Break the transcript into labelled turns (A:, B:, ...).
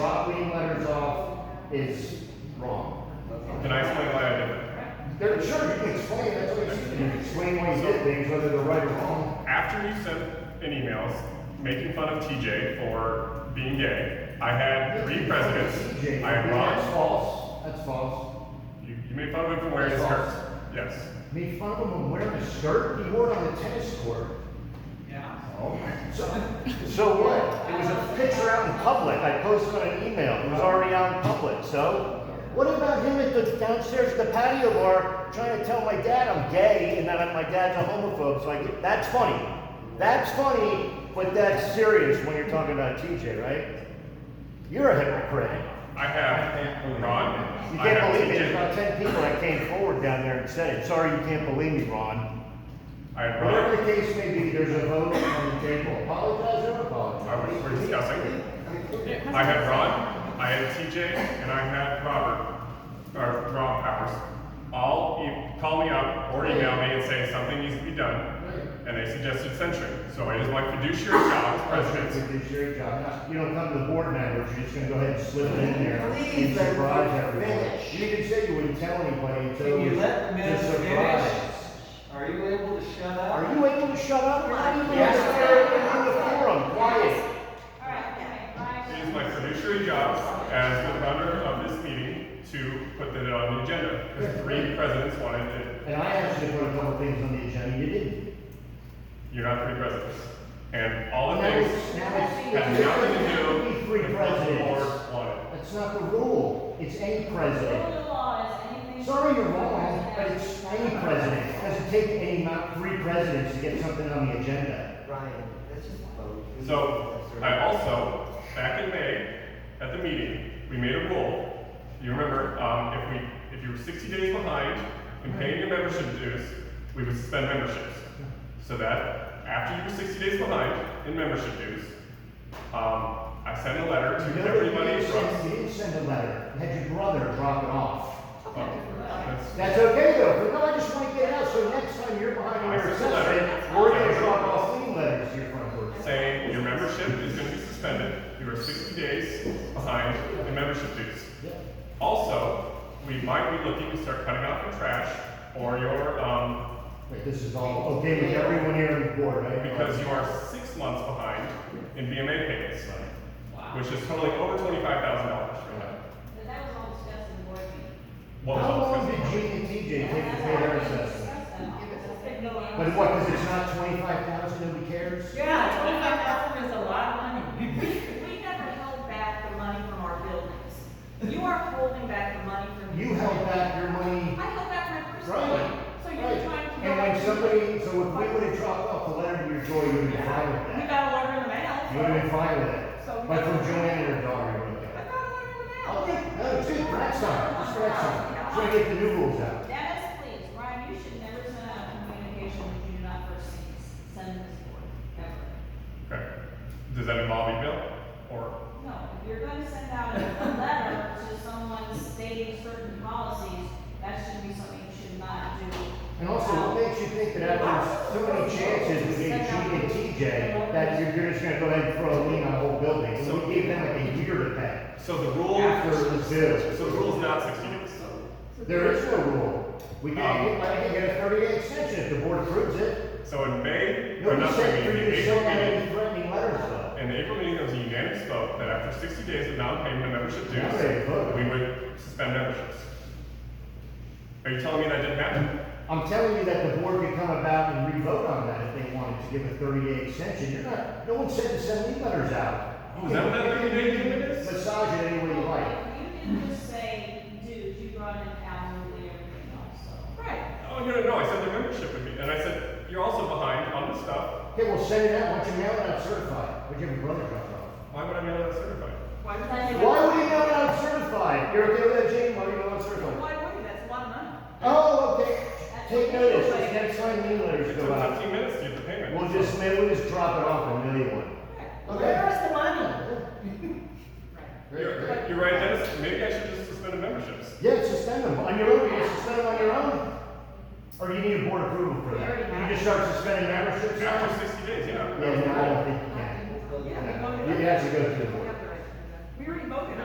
A: is wrong.
B: Can I explain why I did that?
A: There, sure, you can explain, that's what you can explain why you did things, whether they're right or wrong.
B: After you sent an email making fun of TJ for being gay, I had three presidents.
A: Jay,
B: I had
A: That's
B: Ron.
A: false, that's false.
B: You, you made fun of him for wearing his
A: False.
B: skirt. Yes.
A: Made fun of him wearing a skirt, he wore it on the tennis court.
C: Yeah.
A: Oh, So, so what? It was a picture out in public, I posted on an email, it was already out in public, so? What about him at the downstairs, at the patio bar, trying to tell my dad I'm gay, and that I'm- my dad's a homophobe, so I get, that's funny. That's funny, but that's serious when you're talking about TJ, right? You're a hypocrite.
B: I have Ron.
A: You
B: I
A: can't
B: have
A: believe it, there's
B: TJ.
A: about ten people that came forward down there and said it, sorry, you can't believe me, Ron.
B: I had
A: Whatever
B: Ron.
A: the case may be, there's a vote on the table, apologize or apologize.
B: I was, we're discussing. I had Ron, I had TJ, and I had Robert, or Rob Powers. All e- call me up or email me and say something needs to be done, and they suggested censuring. So it is my fiduciary job as president.
A: Fiduciary job. Not- You don't come to the board members, you're just gonna go ahead and slip it in there and
D: Please let
A: surprise
D: them
A: everyone.
D: finish.
A: You didn't say you wouldn't tell anybody until.
C: Can you let the
A: to
C: man
A: surprise.
C: finish? Are you able to shut up?
A: Are you able to shut up? You're not even
D: Yes.
A: in the forum, quiet.
B: It is my fiduciary job as the runner of this meeting to put that on the agenda, because three presidents wanted it.
A: And I actually put a couple things on the agenda, you didn't.
B: You're not three presidents. And all the
A: Now
B: things
A: it's- now it's-
B: had nothing to do
A: It
B: with
A: could be three
B: what the board
A: presidents.
B: wanted.
A: That's not the rule, it's any president. Sorry you're wrong, but it's any president. It doesn't take any, amount three presidents to get something on the agenda.
D: Ryan, let's just vote.
B: So, I also, back in May, at the meeting, we made a rule. You remember, um, if we, if you were sixty days behind in paying your membership dues, we would suspend memberships. So that, after you were sixty days behind in membership dues, um, I sent a letter
A: You
B: to
A: know that you
B: everybody
A: didn't send-
B: from.
A: You didn't send a letter, you had your brother drop it off.
B: Oh, that's-
A: That's okay though, but no, I just want to get out, so next time you're behind
B: I
A: your
B: sent a letter.
A: assessment, we're gonna drop off clean letters to your front door.
B: saying your membership is gonna be suspended, you are sixty days behind in membership dues. Also, we might be looking to start cutting out your trash or your, um,
A: Wait, this is all okay with everyone here on the board, right?
B: because you are six months behind in BMA payments, which is totaling over twenty-five thousand dollars right now. What was
A: How
B: all
A: long did
B: discussed?
A: Gene and TJ take to pay their assessment? But what, because it's not twenty-five thousand, nobody cares?
E: Yeah, twenty-five thousand is a lot of money.
F: We never held back the money from our buildings. You are holding back the money from.
A: You held back your money.
F: I held back my personal money.
A: Right.
F: So
A: right.
F: you're trying to.
A: And when somebody, so if we would have dropped off the letter to your door, you would have been fine with
F: We
A: that.
F: got a letter in the
A: You would have been
F: mail.
A: fine with it.
F: So-
A: But from Joanne and her daughter, you would have
F: I
A: been.
F: got a letter in the mail.
A: Okay, no, dude, that's not, just that's not. So I get the new rules out.
F: Dennis, please, Ryan, you should never send out a communication that you do not first send this board, ever.
B: Okay. Does that involve email or?
F: No, if you're gonna send out a a letter to someone stating certain policies, that should be something you should not do.
A: And also, what makes you think that after so many chances we gave Gene and TJ, that you're, you're just gonna go ahead and throw a lien on the whole building? So we gave them like a year to pay.
B: So the rule,
A: After the bill.
B: so the rule is not sixty days.
A: There is no rule. We can, I can get a thirty-day extension if the board approves it.
B: So in May, or
A: No,
B: not
A: he said for
B: May,
A: you
B: the
A: to
B: April
A: send out
B: meeting,
A: any threatening letters though.
B: In the April meeting, there was a unanimous vote that after sixty days of non-payment of membership
A: Yeah, they voted.
B: dues, we would suspend memberships. Are you telling me that didn't happen?
A: I'm telling you that the board could come about and re-vote on that if they wanted to give a thirty-day extension. You're not, no one said to send any letters out.
B: Oh, is that what that 30-day limit is?
A: Massage it any way you like.
F: Well, if You didn't just say dues, you brought in absolutely everything else, so. Right.
B: Oh, no, no, no, I said the membership would be, and I said, you're also behind on this stuff,
A: Okay, well, send it out, once you mail it out certified, which your brother dropped off.
B: why would I mail it certified?
F: Why would I?
A: Why would you mail it out certified? You're okay with that, Jane, why do you mail it out certified?
F: Why would you, that's a lot of money.
A: Oh, okay, take notice, because next time new letters
B: It
A: go
B: took
A: out,
B: fifteen minutes to get the payment.
A: we'll just, maybe we'll just drop it off and mail you one.
E: Where is the money?
F: Right.
B: You're, you're right, Dennis, maybe I should just suspend the memberships.
A: Yeah, suspend them on your own. You can suspend them on your own. Or you need a board approval for that. You just start suspending memberships. now?
B: After sixty days, yeah.
A: Yeah, no, I don't think you can.
F: Yeah, we voted.
A: You have to go through the board.
F: We already voted